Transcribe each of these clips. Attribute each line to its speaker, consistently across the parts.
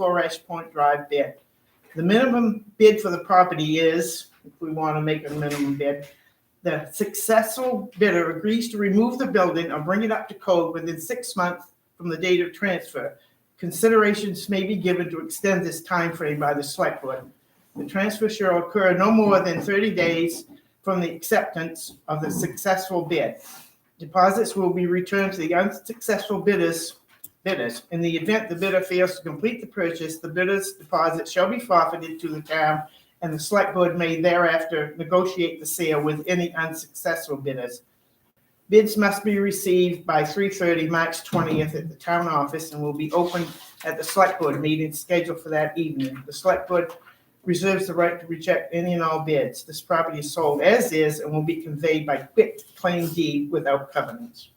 Speaker 1: Flores Point Drive bid. The minimum bid for the property is, if we want to make a minimum bid, the successful bidder agrees to remove the building or bring it up to code within six months from the date of transfer. Considerations may be given to extend this time frame by the select board. The transfer shall occur no more than thirty days from the acceptance of the successful bid. Deposits will be returned to the unsuccessful bidders, bidders. In the event the bidder fails to complete the purchase, the bidder's deposit shall be forfeited to the town, and the select board may thereafter negotiate the sale with any unsuccessful bidders. Bids must be received by three thirty, March twentieth, at the town office, and will be opened at the select board meeting scheduled for that evening. The select board reserves the right to reject any and all bids. This property is sold as is and will be conveyed by quick claim deed without covenants.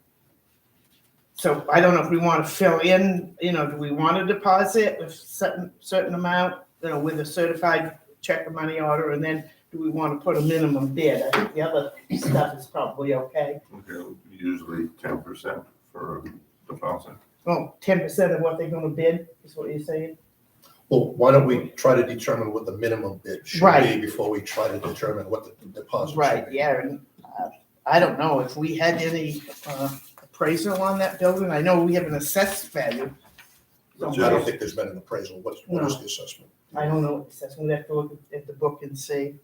Speaker 1: So I don't know if we want to fill in, you know, do we want to deposit a certain, certain amount, you know, with a certified check or money order? And then do we want to put a minimum bid? I think the other stuff is probably okay.
Speaker 2: Okay, usually ten percent for deposit.
Speaker 1: Well, ten percent of what they're gonna bid is what you're saying?
Speaker 3: Well, why don't we try to determine what the minimum bid should
Speaker 1: Right.
Speaker 3: be before we try to determine what the deposit
Speaker 1: Right,
Speaker 3: should be?
Speaker 1: yeah, and uh, I don't know if we had any uh, appraisal on that building. I know we have an assessed value.
Speaker 3: I
Speaker 2: Yeah.
Speaker 3: don't think there's been an appraisal. What, what is the assessment?
Speaker 1: I don't know, what assessment, we have to look at the book and see,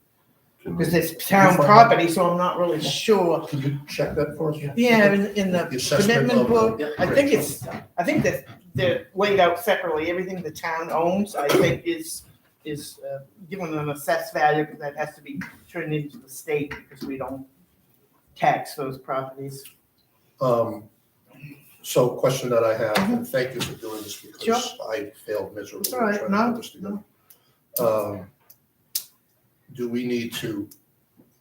Speaker 2: Can we-
Speaker 1: because it's town property, so I'm not really sure.
Speaker 3: Can you check that for us?
Speaker 1: Yeah, in, in the
Speaker 3: The assessment
Speaker 1: commitment
Speaker 3: of-
Speaker 1: book, I think it's, I think that they're laid out separately, everything the town owns, I think is, is uh, given an assessed value, because that has to be turned into the state, because we don't tax those properties.
Speaker 3: Um, so question that I have, and thank you for doing this because I failed miserably.
Speaker 1: Mm-hmm. It's all right.
Speaker 3: trying to put
Speaker 1: No,
Speaker 3: this together. Um, Do we need to,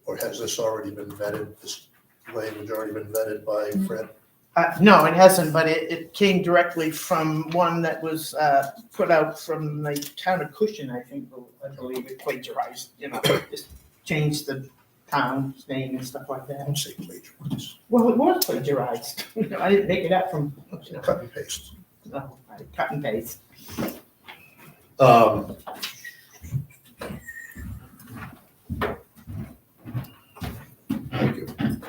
Speaker 3: or has this already been vetted, this language already been vetted by Fred?
Speaker 1: Uh, no, it hasn't, but it, it came directly from one that was, uh, put out from the town of Cushion, I think, I believe it plagiarized, you know, just changed the town's name and stuff like
Speaker 3: I
Speaker 1: that.
Speaker 3: don't say plagiarize,
Speaker 1: Well, it was plagiarized, I didn't make it up from,
Speaker 3: cut and paste.
Speaker 1: no, I cut and paste.
Speaker 3: Um, Thank you.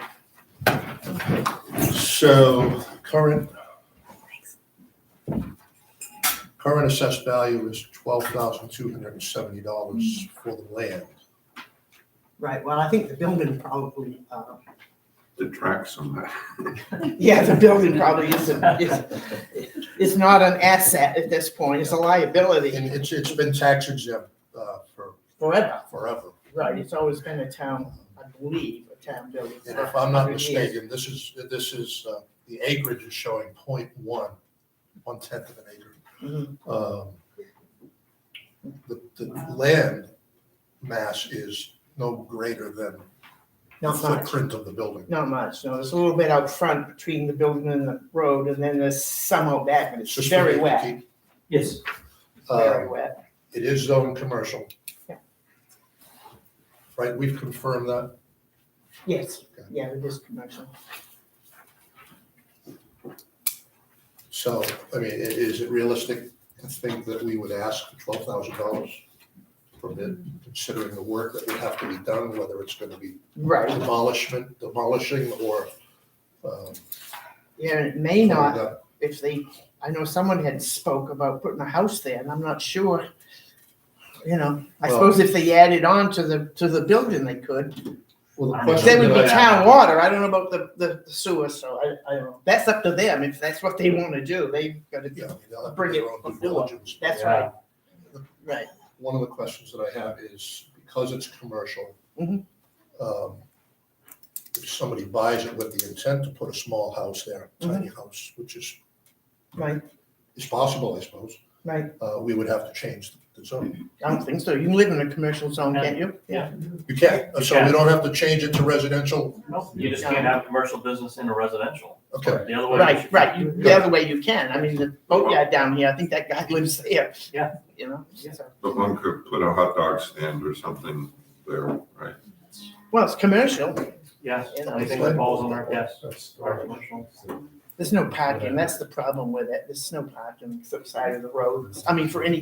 Speaker 3: So current. Current assessed value is twelve thousand two hundred and seventy dollars for the land.
Speaker 1: Right, well, I think the building probably, uh,
Speaker 2: Detracts from that.
Speaker 1: yeah, the building probably isn't, is, is not an asset at this point, it's a liability
Speaker 3: And it's, it's been tax exempt, uh, for
Speaker 1: forever.
Speaker 3: forever.
Speaker 1: Right, it's always been a town, I believe, a town building.
Speaker 3: And if I'm not mistaken, this is, this is, uh, the acreage is showing point one, one tenth of an acre.
Speaker 1: Mhm.
Speaker 3: um, the, the land mass is no greater than the
Speaker 1: Not much,
Speaker 3: footprint of the building.
Speaker 1: not much, no, there's a little bit out front between the building and the road, and then there's some out back, and
Speaker 3: It's
Speaker 1: it's
Speaker 3: just
Speaker 1: very
Speaker 3: for
Speaker 1: wet,
Speaker 3: keep-
Speaker 1: yes, very
Speaker 3: uh,
Speaker 1: wet.
Speaker 3: It is zoned commercial.
Speaker 1: Yeah.
Speaker 3: Right, we've confirmed that.
Speaker 1: Yes,
Speaker 3: Okay.
Speaker 1: yeah, it is commercial.
Speaker 3: So, I mean, i- is it realistic to think that we would ask for twelve thousand dollars for bid, considering the work that would have to be done, whether it's gonna be
Speaker 1: Right,
Speaker 3: demolishment, demolishing or, um,
Speaker 1: yeah, it may not,
Speaker 3: uh,
Speaker 1: if they, I know someone had spoke about putting a house there, and I'm not sure. You know, I
Speaker 3: Well-
Speaker 1: suppose if they added on to the, to the building, they could.
Speaker 3: Well, the
Speaker 4: They
Speaker 3: question
Speaker 1: They would
Speaker 3: that
Speaker 1: be
Speaker 3: I-
Speaker 1: town water, I don't know about the, the the sewer, so I, I don't know, that's up to them, if that's what they wanna do, they've gotta do,
Speaker 3: Yeah, I mean, they'll have to
Speaker 1: Bring
Speaker 3: do
Speaker 1: it
Speaker 3: their own due
Speaker 1: before.
Speaker 3: diligence.
Speaker 1: that's
Speaker 4: Yeah.
Speaker 1: right. Right,
Speaker 3: One of the questions that I have is, because it's commercial,
Speaker 1: Mhm.
Speaker 3: um, if somebody buys it with the intent to put a small house there, tiny house, which is,
Speaker 1: right,
Speaker 3: is possible, I suppose,
Speaker 1: right,
Speaker 3: uh, we would have to change the zoning.
Speaker 1: I don't think so, you can live in a commercial zone, can't you?
Speaker 4: Yeah.
Speaker 3: You can, not so we
Speaker 4: can.
Speaker 3: don't have to change it to residential,
Speaker 4: Nope, you just can't have commercial business in a residential.
Speaker 3: okay.
Speaker 4: The other way.
Speaker 1: Right, right, you, the other way you can, I mean, the boatyard down here, I think that guy lives there.
Speaker 4: Yeah.
Speaker 1: You know,
Speaker 4: Yeah.
Speaker 1: so-
Speaker 2: But one could put a hot dog stand or something there, right?
Speaker 1: well, it's commercial,
Speaker 4: Yes,
Speaker 1: you know,
Speaker 4: anything that falls on our, yes, our commercial.
Speaker 1: there's no parking, that's the problem with it, there's no parking, for the side of the road, I mean, for any